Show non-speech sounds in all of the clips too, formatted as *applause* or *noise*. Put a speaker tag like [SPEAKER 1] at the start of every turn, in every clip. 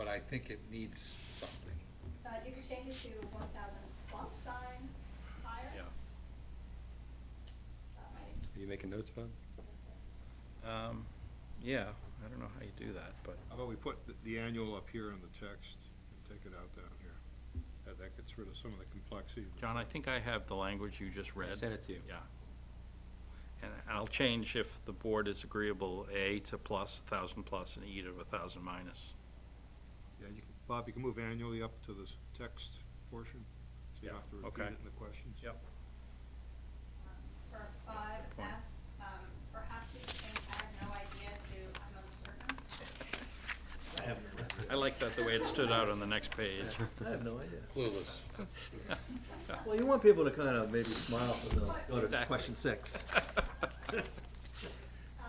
[SPEAKER 1] I think it needs something.
[SPEAKER 2] Uh, you could change it to one thousand plus sign higher.
[SPEAKER 3] Yeah.
[SPEAKER 2] That might-
[SPEAKER 4] Are you making notes, Bob?
[SPEAKER 3] Um, yeah, I don't know how you do that, but,
[SPEAKER 5] How about we put the- the annual up here in the text and take it out down here? That, that gets rid of some of the complexity. that's-
[SPEAKER 3] John, I think I have the language you just read.
[SPEAKER 4] sent it to you.
[SPEAKER 3] Yeah. And I'll change if the board is agreeable, A to plus, a thousand plus, and E to a thousand minus.
[SPEAKER 5] Yeah, you can, Bob, you can move annually up to this text portion, so you
[SPEAKER 3] Yeah,
[SPEAKER 5] don't have to repeat
[SPEAKER 3] okay.
[SPEAKER 5] it in the questions.
[SPEAKER 2] um, For five
[SPEAKER 3] Good point.
[SPEAKER 2] F, um, perhaps we could change, I have no idea to, I'm uncertain.
[SPEAKER 3] I like that, the way it stood out on the next page.
[SPEAKER 6] I have no idea.
[SPEAKER 1] *laughs* Clueless.
[SPEAKER 3] *laughs*
[SPEAKER 6] Well, you want people to kind of maybe smile when they go to
[SPEAKER 3] Exactly.
[SPEAKER 6] question six. *laughs*
[SPEAKER 2] Um,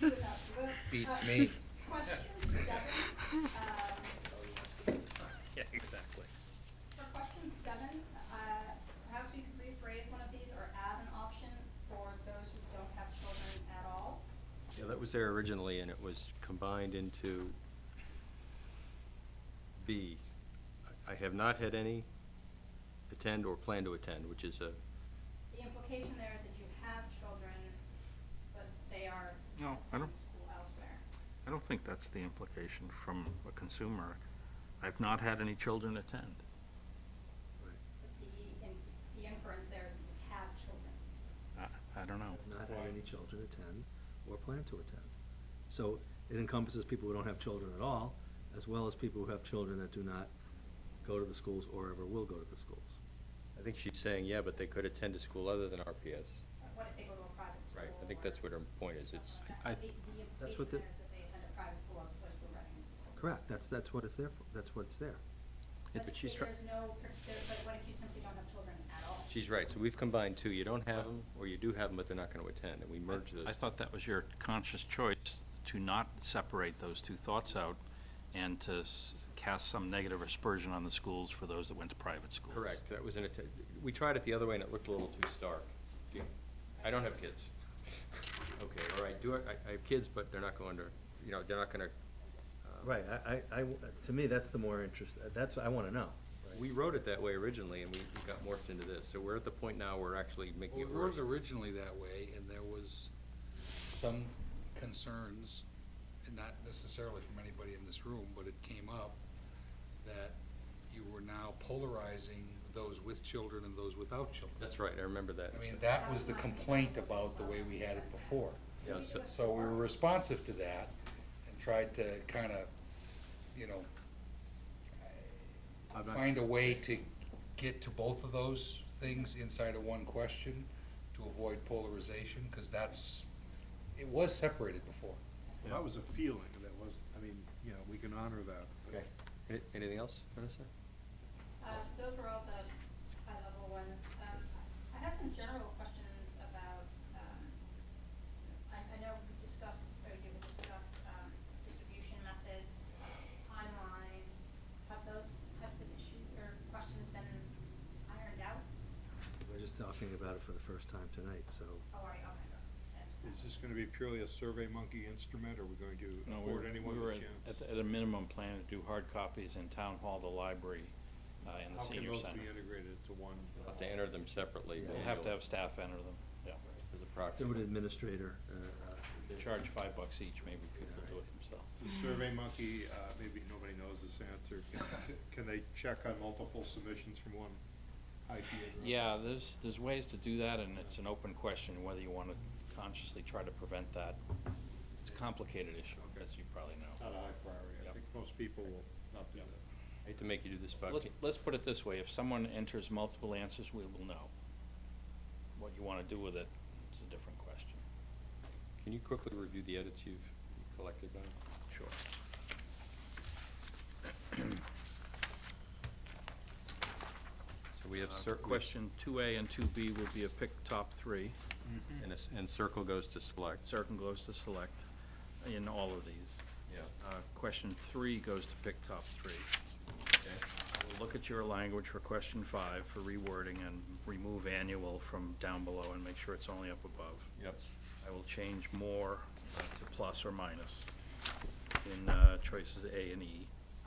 [SPEAKER 2] without- with-
[SPEAKER 1] Beats
[SPEAKER 2] uh,
[SPEAKER 1] me.
[SPEAKER 2] Question seven, um,
[SPEAKER 3] *laughs* Yeah, exactly.
[SPEAKER 2] For question seven, uh, perhaps we could rephrase one of these or add an option for those who don't have children at all.
[SPEAKER 4] Yeah, that was there originally, and it was combined into B. I I have not had any attend or plan to attend, which is a,
[SPEAKER 2] The implication there is that you have children, but they are
[SPEAKER 3] No, I
[SPEAKER 2] attending
[SPEAKER 3] don't-
[SPEAKER 2] school elsewhere.
[SPEAKER 3] I don't think that's the implication from a consumer. I've not had any children attend.
[SPEAKER 2] But The, in- the inference there is that you have children.
[SPEAKER 3] I, I don't know.
[SPEAKER 6] Not have any children attend or plan to attend. So it encompasses people who don't have children at all, as well as people who have children that do not go to the schools or ever will go to the schools.
[SPEAKER 4] I think she's saying, yeah, but they could attend a school other than RPS.
[SPEAKER 2] Uh, What if they go to a private school?
[SPEAKER 4] Right, I think that's
[SPEAKER 2] or
[SPEAKER 4] what her point is,
[SPEAKER 2] something like
[SPEAKER 4] it's,
[SPEAKER 2] that?
[SPEAKER 3] I-
[SPEAKER 2] So the- the
[SPEAKER 6] That's what
[SPEAKER 2] implication
[SPEAKER 6] the-
[SPEAKER 2] there is that they attend a private school as opposed to a regular school.
[SPEAKER 6] Correct, that's, that's what it's there for, that's what it's there.
[SPEAKER 4] Yeah, but she's try-
[SPEAKER 2] There's no, per- there- but what if you simply don't have children at all?
[SPEAKER 4] she's right, so we've combined two, you don't have them, or you do have them, but they're not gonna attend, and we merged those.
[SPEAKER 3] I thought that was your conscious choice to not separate those two thoughts out and to s- cast some negative aspersion on the schools for those that went to private schools.
[SPEAKER 4] Correct, that was an, atten- we tried it the other way and it looked a little too stark. Do you- I don't
[SPEAKER 3] *laughs*
[SPEAKER 4] have kids. Okay, all right, do I, I- I have kids, but they're not going to, you know, they're not gonna. um,
[SPEAKER 6] Uh, Right, I, I- I w- to me, that's the more interest, that's what I want to know.
[SPEAKER 4] We wrote it that way originally and we we got morphed into this, so we're at the point now where we're actually making
[SPEAKER 1] Well,
[SPEAKER 4] it
[SPEAKER 1] we wrote
[SPEAKER 4] worse.
[SPEAKER 1] it originally that way, and there was some concerns, and not necessarily from anybody in this room, but it came up that you were now polarizing those with children and those without children.
[SPEAKER 4] That's right, I remember that.
[SPEAKER 1] I mean, that was the complaint about the way we had it before.
[SPEAKER 4] Yeah, so-
[SPEAKER 1] So we were responsive to that and tried to kind of, you know,
[SPEAKER 5] I'm not
[SPEAKER 1] find a way to get to both of those things inside of one question to avoid polarization, because that's, it was separated before.
[SPEAKER 5] Well, That was a feeling, that was, I mean, you know, we can honor that. but-
[SPEAKER 4] Okay. Any- Anything else, Vanessa?
[SPEAKER 2] Uh, those were all the high-level ones. Um, I had some general questions about, um, I, I know we discussed, or you would discuss, um, distribution methods, timeline. Have those types of issues or questions been ironed out?
[SPEAKER 6] We're just talking about it for the first time tonight, so.
[SPEAKER 2] How Oh, are you on
[SPEAKER 5] Is this gonna be purely a survey monkey instrument, or are we going to
[SPEAKER 3] No, we
[SPEAKER 5] afford
[SPEAKER 3] were-
[SPEAKER 5] anyone
[SPEAKER 3] we
[SPEAKER 5] the
[SPEAKER 3] were
[SPEAKER 5] chance?
[SPEAKER 3] At, at a minimum, planning to do hard copies in town hall, the library, uh, and the senior
[SPEAKER 5] How
[SPEAKER 3] center.
[SPEAKER 5] can those be integrated into one?
[SPEAKER 4] We'll Have to enter them separately.
[SPEAKER 6] Yeah.
[SPEAKER 3] We'll
[SPEAKER 4] but
[SPEAKER 3] have to
[SPEAKER 4] you'll-
[SPEAKER 3] have staff enter them, yeah.
[SPEAKER 4] As a proxy.
[SPEAKER 6] Through an administrator. uh, uh,
[SPEAKER 3] Charge five bucks each, maybe people do it themselves.
[SPEAKER 5] The survey monkey, uh, maybe nobody knows this answer, Can- can they check on multiple submissions from one IP address?
[SPEAKER 3] Yeah, there's, there's ways to do that, and it's an open question whether you want to consciously try to prevent that. It's a complicated issue,
[SPEAKER 5] Okay. Uh,
[SPEAKER 3] as you probably know.
[SPEAKER 5] Not a high priority, I
[SPEAKER 3] Yep.
[SPEAKER 5] think most people will not do that.
[SPEAKER 4] I Hate to make you do this, but
[SPEAKER 3] Let's, let's put it this way, if someone enters multiple answers, we will know. What you want to do with it is a different question.
[SPEAKER 4] can you quickly review the edits you've collected now?
[SPEAKER 3] Sure.
[SPEAKER 4] So we have
[SPEAKER 3] Uh,
[SPEAKER 4] cer-
[SPEAKER 3] Question two A and two B will be a pick top three.
[SPEAKER 4] And, a s- and circle goes to select.
[SPEAKER 3] Certain goes to select in all of these.
[SPEAKER 4] Yeah.
[SPEAKER 3] Uh, Question three goes to pick top three. I will Look at your language for question five for rewording and remove annual from down below and make sure it's only up above.
[SPEAKER 4] Yep.
[SPEAKER 3] I will change more uh, to plus or minus in uh, choices A and E.